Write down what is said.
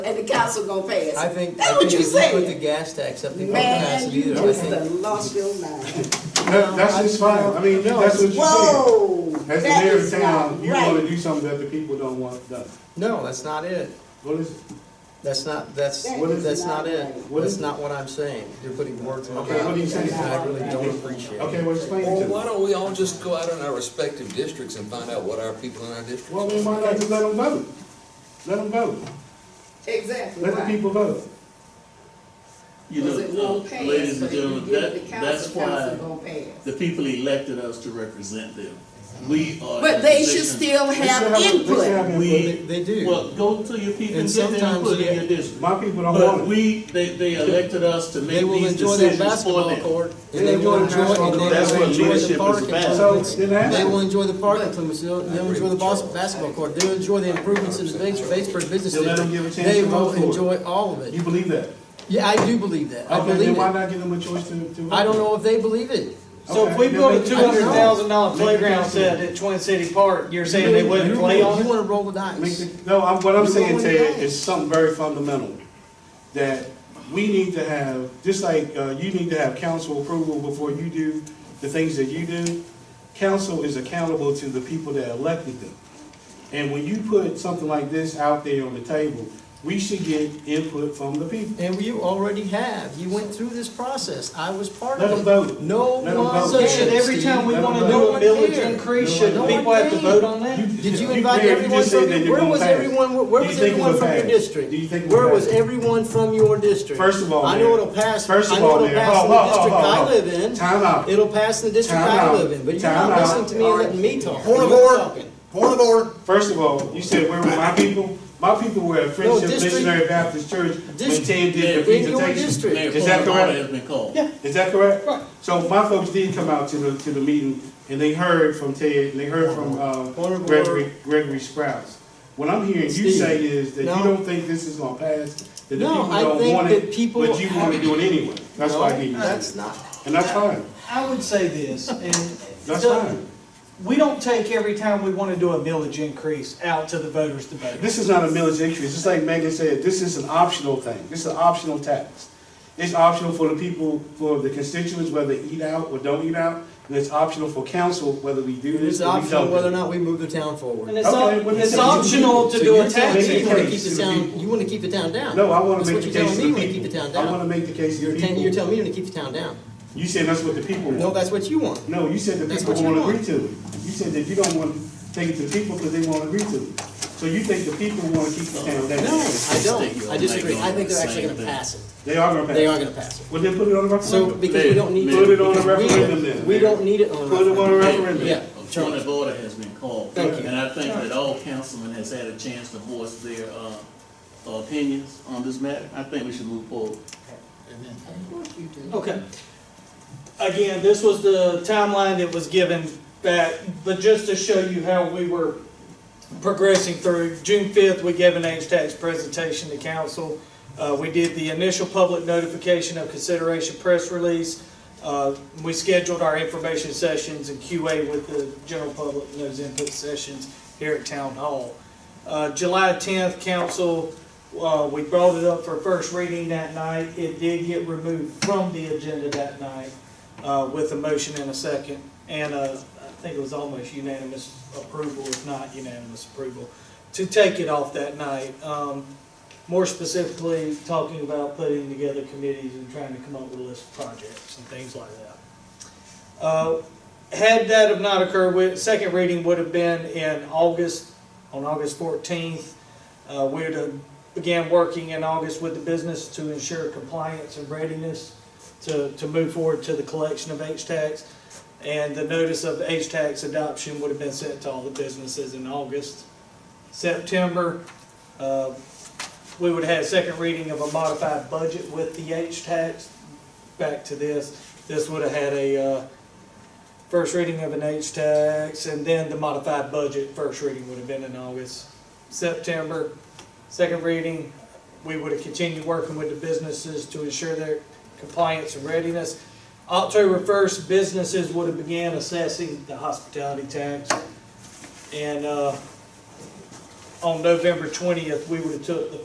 and the council gonna pass. I think, That's I what think you if you put the said. gas tax, I think we can pass Man, it you either, I just done think. lost your mind. That, that's just fine, I mean, that's what you're Whoa, saying. As the that mayor of is town, not you wanna right. do something that the people don't want done. No, that's not it, What is, it? that's not, that's, That is that's not not it, right. What that's is- not what I'm saying, you're putting words in my Okay, what are you mouth, saying? and I really don't appreciate it. okay, well, explain it Well, to why them. don't we all just go out in our respective districts and find out what our people in our district? Well, we might not just let them vote. Let them vote. Exactly Let the right. people vote. You Because it know, won't uh, pass, ladies and but if you gentlemen, give it that, to council, that's why council gonna pass. the people elected us to represent them. We are. in But a they should position- still They still have they still input. have input. They, We, they do, well, go to your people And and get their sometimes input they- in your district. My people don't But want it. we, they, they elected us to they make will these enjoy their decisions for basketball them. court, and they will enjoy, and That's they what will enjoy leadership the is parking. about. So, then ask They will them. enjoy the parking clearance, they'll, they'll enjoy the bas- basketball court, they'll enjoy the improvements in the Bates- Batesburg Business You'll let them District. give a chance They to will vote for it. enjoy all of You it. believe that? Yeah, I do believe that, I Okay, then believe why it. not give them a choice to, to? I don't vote? know if they believe it. So if we Okay, build then a make- two hundred thousand dollar Make it playground possible. set at Twin City Park, you're saying they wouldn't play on You it? wanna roll the dice. Make the- No, I'm, what I'm You saying, know what it Ted, is. is something very fundamental, that we need to have, just like, uh, you need to have council approval before you do the things that you do, council is accountable to the people that elected them. And when you put something like this out there on the table, we should get input from the people. And you already have, you went through this process, I was part Let of them it. vote. No Let them one vote. So should cares, every Steve. time we No wanna one do a cares. village No increase, one should cares. people have to vote on that? Did you invite Mayor, everyone just from said that your, you're where gonna was pass. everyone, where Do you was think it everyone would from your pass? district? Do you think it would Where was pass? everyone from your district? First of all, I know Mayor. it'll pass, I First of know all, it'll Mayor. pass in Hold, the hold, district hold, I hold. live in. Time out. It'll pass in the district Time I out. live in, but you're Time not out. listening to me and letting me talk. Point of You're order, talking. point of order. First of all, you said where were my people? My people were at Friendship district- Missionary Baptist Church when District- Tim did the in your presentation. district. Mayor, Is that point of order correct? Has been called. Is that correct? Right. So my folks did come out to the, to the meeting, and they heard from Ted, and they heard from, uh, Honorable- Gregory, Gregory Sprouts. What I'm hearing you Steve, say is that you no. don't think this is gonna pass, that the No, people I don't think want that it, people but you wanna do it anyway. That's why I hear No, you That's say. not, And that's fine, I would say this, and it that's doesn't- fine. we don't take every time we wanna do a village increase out to the voters to vote. This is not a millage increase, just like Megan said, this is an optional thing, this is an optional tax. It's optional for the people, for the constituents, whether they eat out or don't eat out, and it's optional for council, whether we do this it's or we optional don't. do whether or it. not we move the town forward. And it's, Okay, op- what is it's it? optional to So do you're a telling tax taking me You wanna case keep to the the town, people. you wanna keep the town down? No, I wanna That's make what the you're telling me, case to the you wanna keep the town people. I down. wanna make the case to You're the telling, you're people. telling me you wanna keep the town down. You said that's what the people No, want. that's what you want. No, you said the That's people what you won't want. agree to it. You said that you don't wanna take it to the people because they won't agree to it. So you think the people wanna keep the town down? Uh, No, I don't. I disagree. I think they're actually gonna pass it. They are gonna pass. They are gonna pass it. Well, then put it on the So, referendum. because we don't need. to- Put it on a because we- referendum then. We don't need it on a Put it on a referendum. referendum. Yeah, A Charlie. point of order has been called. Thank you. And I think that all councilmen has had a chance to voice their, uh, opinions on this matter. I think we should move forward. Okay. Again, this was the timeline that was given back, but just to show you how we were progressing through, June fifth, we gave an age tax presentation to council. Uh, we did the initial public notification of consideration press release. Uh, we scheduled our information sessions and QA with the general public, and those input sessions here at town hall. Uh, July tenth, council, uh, we brought it up for first reading that night. It did get removed from the agenda that night, uh, with a motion and a second. And, uh, I think it was almost unanimous approval, if not unanimous approval, to take it off that night. Um, more specifically, talking about putting together committees and trying to come up with a list of projects and things like that. Uh, had that have not occurred, we- second reading would have been in August, on August fourteenth. Uh, we would have began working in August with the business to ensure compliance and readiness to, to move forward to the collection of H-Tax. And the notice of H-Tax adoption would have been sent to all the businesses in August. September, uh, we would have had second reading of a modified budget with the H-Tax. Back to this, this would have had a, uh, first reading of an H-Tax, and then the modified budget, first reading would have been in August. September, second reading, we would have continued working with the businesses to ensure their compliance and readiness. October first, businesses would have began assessing the hospitality tax. And, uh, on November twentieth, we would have took the